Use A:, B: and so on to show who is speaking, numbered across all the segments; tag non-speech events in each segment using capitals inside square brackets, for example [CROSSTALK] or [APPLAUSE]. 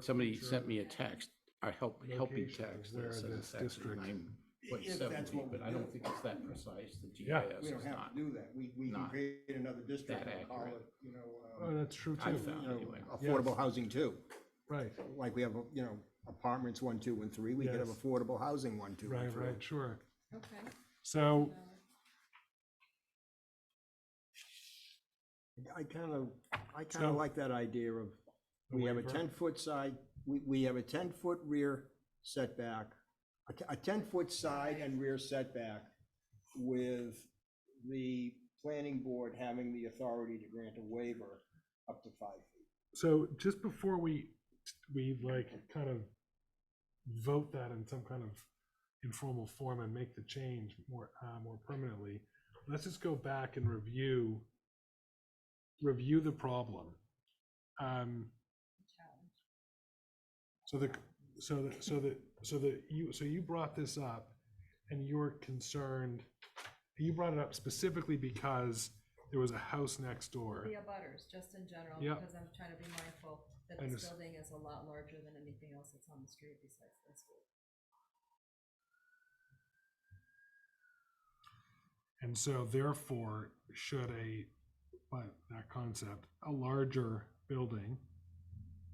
A: somebody sent me a text, a help, helping
B: Location of
A: text
B: where
A: that says
B: this
A: it's actually
B: district-
A: nine point
C: If that's
A: seven,
C: what we
A: but I don't
C: do.
A: think it's that precise, the
B: Yeah.
A: GIS
C: We
A: is
C: don't have
A: not.
C: to do that. We, we can
A: not
C: create another district
A: that
C: and call
A: accurate.
C: it, you know,
B: Oh,
C: um,
B: that's true
A: I
B: too.
A: found
C: you
A: anyway.
C: know, affordable housing too.
B: Right,
C: Like we have, you know, apartments one, two, and three. We could have
B: Yes.
C: affordable housing one, two, and
B: right,
C: three.
B: right, sure.
D: Okay.
B: So,
C: I kind of, I kind
B: So-
C: of like that idea of,
B: A
C: we have a
B: waiver.
C: ten-foot side, we, we have a ten-foot rear setback, a, t- a ten-foot side and rear setback with the planning board having the authority to grant a waiver up to five feet.
B: so just before we, we like kind of vote that in some kind of informal form and make the change more, uh, more permanently, let's just go back and review, review the problem. Um, So the, so the, so the, so the, you, so you brought this up and you were concerned, you brought it up specifically because there was a house next door.
D: The abutters, just in general,
B: Yep.
D: because I'm trying to be mindful that
B: I
D: this
B: understand.
D: building is a lot larger than anything else that's on the street besides this one.
B: And so therefore, should a, but that concept, a larger building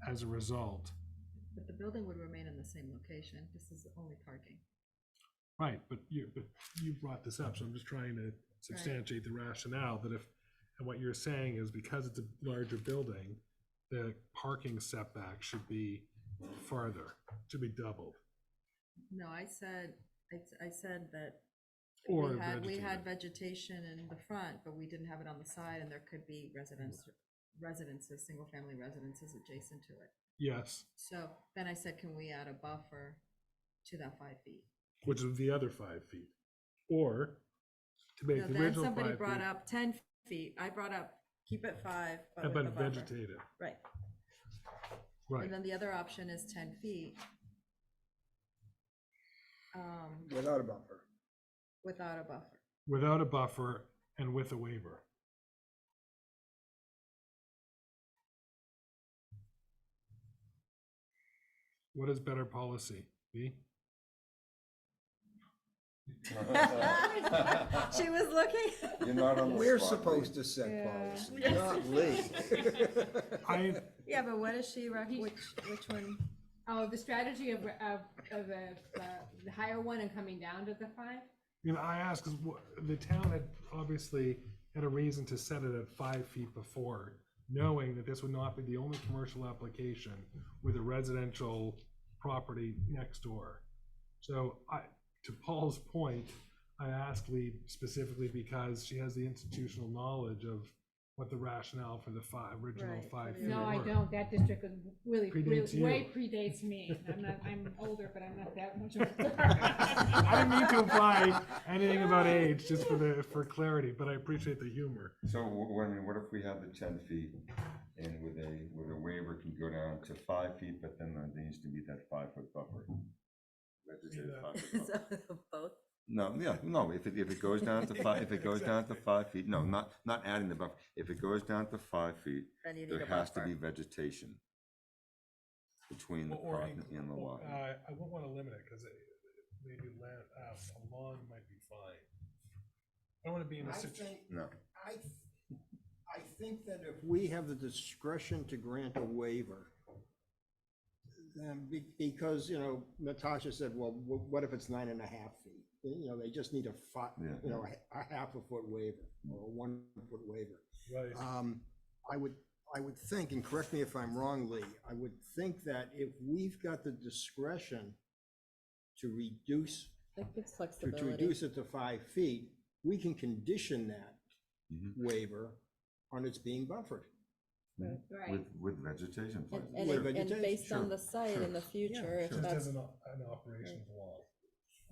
B: as a result,
D: But the building would remain in the same location. This is only parking.
B: right, but you, but you brought this up, so I'm just trying to substantiate the rationale that if, and what you're saying is because it's a larger building, the parking setback should be farther, should be doubled,
D: No, I said, I, I said that
B: or
D: We had, we had
B: vegetated.
D: vegetation in the front, but we didn't have it on the side, and there could be residents, residences, single-family residences adjacent to it.
B: Yes,
D: So then I said, can we add a buffer to that five feet?
B: which is the other five feet, or to make
D: No,
B: the
D: Then
B: original
D: somebody
B: five
D: brought
B: feet,
D: up ten feet, I brought up, keep it five, but with a
B: but
D: buffer.
B: vegetated,
D: Right,
B: right.
D: and then the other option is ten feet. Um,
C: Without a bumper.
D: without a buffer, [LAUGHS]
B: without a buffer and with a waiver. What is better policy? B?
D: she was looking, [LAUGHS]
E: You're not on the
C: We're
E: spot,
C: supposed
E: Lee.
C: to set policy,
E: Yeah.
C: not [LAUGHS] Lee.
B: I,
D: yeah, but what is she, rec- which, which one? [LAUGHS]
F: Oh, the strategy of, of, of uh, the higher one and coming down to the five?
B: you know, I ask, because the town had obviously had a reason to set it at five feet before, knowing that this would not be the only commercial application with a residential property next door. So I, to Paul's point, I asked Lee specifically because she has the institutional knowledge of what the rationale for the five, original
D: Right,
B: five
D: for
B: feet
D: the
F: No, I
B: were. [LAUGHS]
F: don't, that district is really,
B: Predates
F: really,
B: you.
F: way predates me. I'm not, I'm older, but I'm not that
B: [LAUGHS]
F: much [LAUGHS] older.
B: I didn't mean to imply anything
F: [LAUGHS]
B: about age, just for the, for clarity, but I appreciate the humor.
E: So, wh- I mean, what if we have the ten feet and with a, with a waiver can go down to five feet, but then there needs to be that five foot buffer? Let's just say the five
D: [LAUGHS]
E: foot buffer.
D: Both?
E: No, yeah, no, if it, if it goes down to five, if it goes down to five feet, no, not, not adding the buffer. If it goes down to five feet,
D: Then you need a
E: there has to
D: buffer.
E: be vegetation between the
B: Or- or
E: parking
B: inc-
E: and the
B: or,
E: lot.
B: Uh, I wouldn't want to limit it, because maybe land, uh, a lawn might be fine. I don't want to be in a situation.
E: No.
C: I, th- I think that if we have the discretion to grant a waiver, then be, because, you know, Natasha said, well, wh- what if it's nine and a half feet? You know, they just need a fi,
E: Yeah.
C: you know, a, a half a foot waiver or a one foot waiver.
B: Right,
C: Um, I would, I would think, and correct me if I'm wrong, Lee, I would think that if we've got the discretion to reduce
D: It gives
C: to, to reduce it to five feet, we can condition that
E: Mhm.
C: waiver on its being buffered.
E: With, with vegetation
D: And,
E: plants.
D: and,
C: Where
D: it- and
C: vegetation-
D: based on
E: sure,
D: the site
E: sure,
D: in the future, if
E: sure.
B: just as
D: that's,
B: an, o- an operation of law.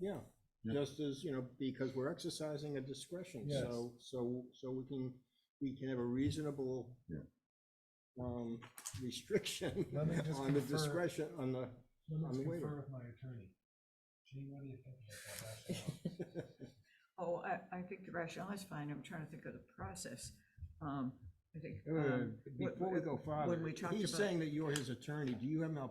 C: Yeah,
E: Yeah.
C: just as, you know, because we're exercising a discretion,
B: Yes.
C: so, so, so we can, we can have a reasonable
E: Yeah.
C: um, restriction
B: [LAUGHS] Let me just
C: on the
B: confer-
C: discretion, on
B: [LAUGHS]
C: the,
B: Let
C: On
B: me
C: the waiver.
B: confer with my attorney. Gene, what do you think about that [LAUGHS] rationale?
G: Oh, I, I think the rationale is fine, I'm trying to think of the process. Um, I think.
C: Uh,
G: um, what-
C: [LAUGHS] before we go
G: When
C: farther,
G: we talked
C: he's
G: about.
C: saying that you're his attorney, do you have an